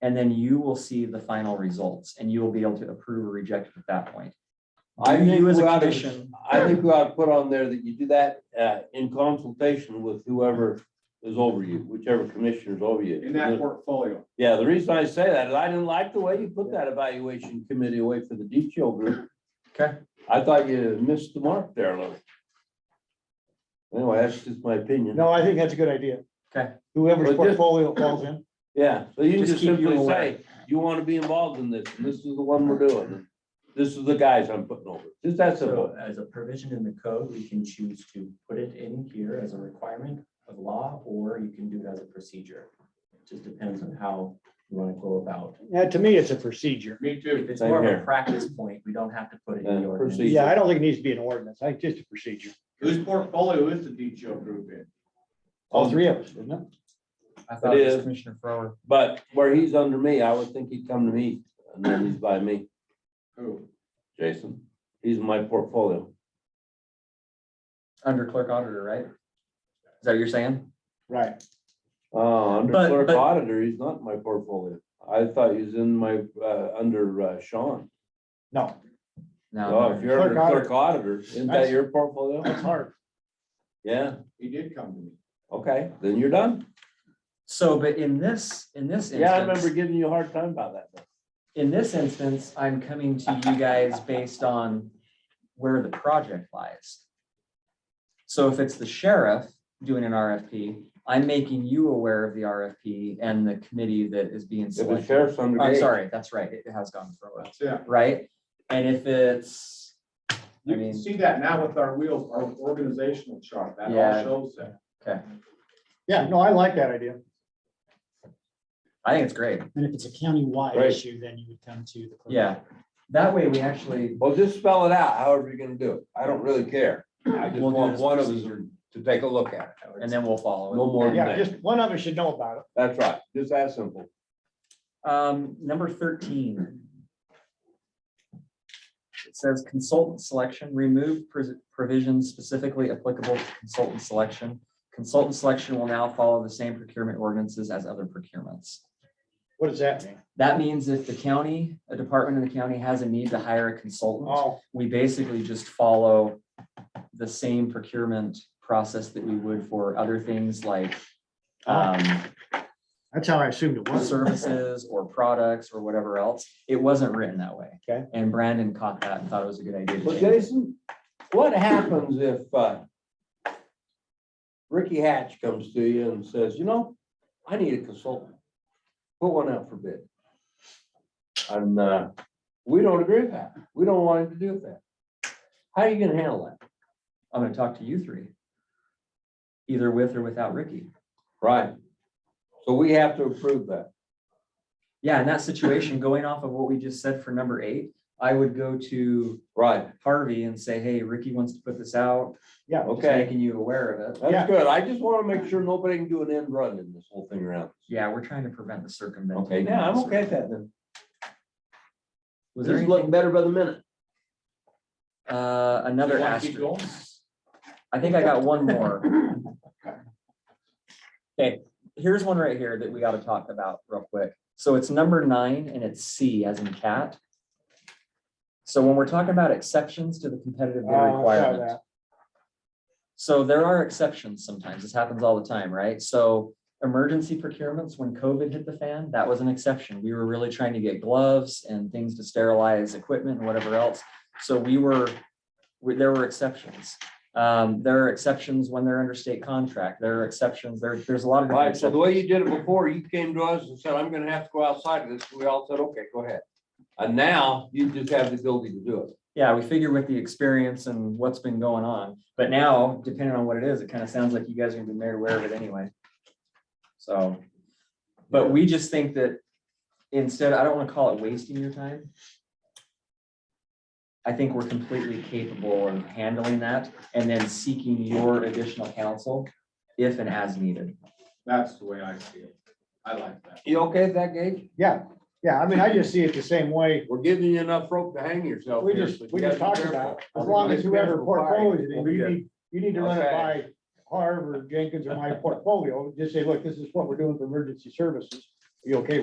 And then you will see the final results and you will be able to approve or reject at that point. I Do think You as we a ought to- commission, I think we ought to put on there that you do that uh in consultation with whoever is over you, whichever commissioner's over you. in that portfolio. Yeah, the reason I say that is I didn't like the way you put that evaluation committee away for the DTO group. Okay. I thought you missed the mark there a little. Anyway, that's just my opinion. No, I think that's a good idea. Okay. Whoever's Well, just- portfolio falls in. Yeah, so you can Just just keep you simply aware. say, you want to be involved in this, and this is the one we're doing. and This is the guys I'm putting over. Just that simple. So as a provision in the code, we can choose to put it in here as a requirement of law, or you can do it as a procedure. It Just depends on how you want to go about. Yeah, to me, it's a procedure. Me too. If it's Same more of here. a practice point, we don't have to put it in Yeah, the ordinance. procedure. Yeah, I don't think it needs to be an ordinance. I think just a procedure. Whose portfolio is the DTO group in? All three of us, isn't it? I thought it is. was Commissioner Farrar. But where he's under me, I would think he'd come to me, and then he's by me, Who? Jason. He's in my portfolio. Under clerk auditor, right? Is that what you're saying? Right. Uh, under But- clerk but- auditor, he's not in my portfolio. I thought he was in my, uh, under uh, Sean. No, Oh, No. if you're under Clerk clerk auditor, isn't that That's- your portfolio? that's hard. Yeah, He did come to me. okay, then you're done. So, but in this, in this instance. Yeah, I remember giving you a hard time about that. in this instance, I'm coming to you guys based on where the project lies. So if it's the sheriff doing an RFP, I'm making you aware of the RFP and the committee that is being If the selected. sheriff's under. I'm me, sorry, that's right, it has gone for a while, That's it. right? And if it's, You I can mean- see that now with our wheels, our organizational chart, that all Yeah. shows that. Yeah, no, I like that idea. I think it's great, And if it's a countywide Right. issue, then you would come to the. clerk. yeah. That way we actually, Well, just spell it out, however you're gonna do it. I don't really care. I just We'll do want this one of us to take a look at it. and then we'll follow. it. No more than Yeah, that. just one of us should know about it. That's right, just that simple. Um, number thirteen. It says consultant selection, remove pres- provisions specifically applicable to consultant selection. Consultant selection will now follow the same procurement ordinances as other procurements. What does that mean? That means if the county, a department in the county has a need to hire a consultant, Oh, we basically just follow the same procurement process that we would for other things like Ah. um, Uh, that's how I assumed it was. services or products or whatever else. It wasn't written that way. Okay. And Brandon caught that and thought it was a good idea to Well, change. it. Jason, what happens if, uh, Ricky Hatch comes to you and says, you know, I need a consultant. Put one out for bid. And, uh, we don't agree with that. We don't want him to do that. How are you gonna handle that? I'm gonna talk to you three. Either with or without Ricky. Right. So we have to approve that. Yeah, in that situation, going off of what we just said for number eight, I would go to Right, Harvey and say, hey, Ricky wants to put this out. Yeah. Just Okay. Making you aware of it. Yeah. that's good. I just want to make sure nobody can do an end run in this whole thing around. Yeah, we're trying to prevent the circumvention. Okay, yeah, I'm okay with that then. Was This there is looking anything, better by the minute. uh, another You wanna keep asterisk? I think I got one more. Okay, here's one right here that we gotta talk about real quick. So it's number nine and it's C as in cat. So when we're talking about exceptions to the competitive Oh, bid I saw requirement, that. so there are exceptions sometimes. This happens all the time, right? So emergency procurements, when COVID hit the fan, that was an exception. We were really trying to get gloves and things to sterilize equipment and whatever else. So we were, we- there were exceptions. Um, there are exceptions when they're under state contract. There are exceptions. There, there's a lot of. different Right, so the way exceptions. you did it before, you came to us and said, I'm gonna have to go outside of this. We all said, okay, go ahead. And now you just have the ability to do it. Yeah, we figure with the experience and what's been going on, but now depending on what it is, it kind of sounds like you guys are gonna be made aware of it anyway. So, but we just think that instead, I don't want to call it wasting your time. I think we're completely capable of handling that and then seeking your additional counsel if and as needed. That's the way I see it. I like that. You okay with that, Gage? Yeah, yeah, I mean, I just see it the same way. We're giving you enough rope to hang yourself We here, just, so you we gotta just be talked careful. about, as long as whoever portfolio, is in, you Okay. need, you need to run it by Okay. Harv or Jenkins or my portfolio, just say, look, this is what we're doing for emergency services. You okay with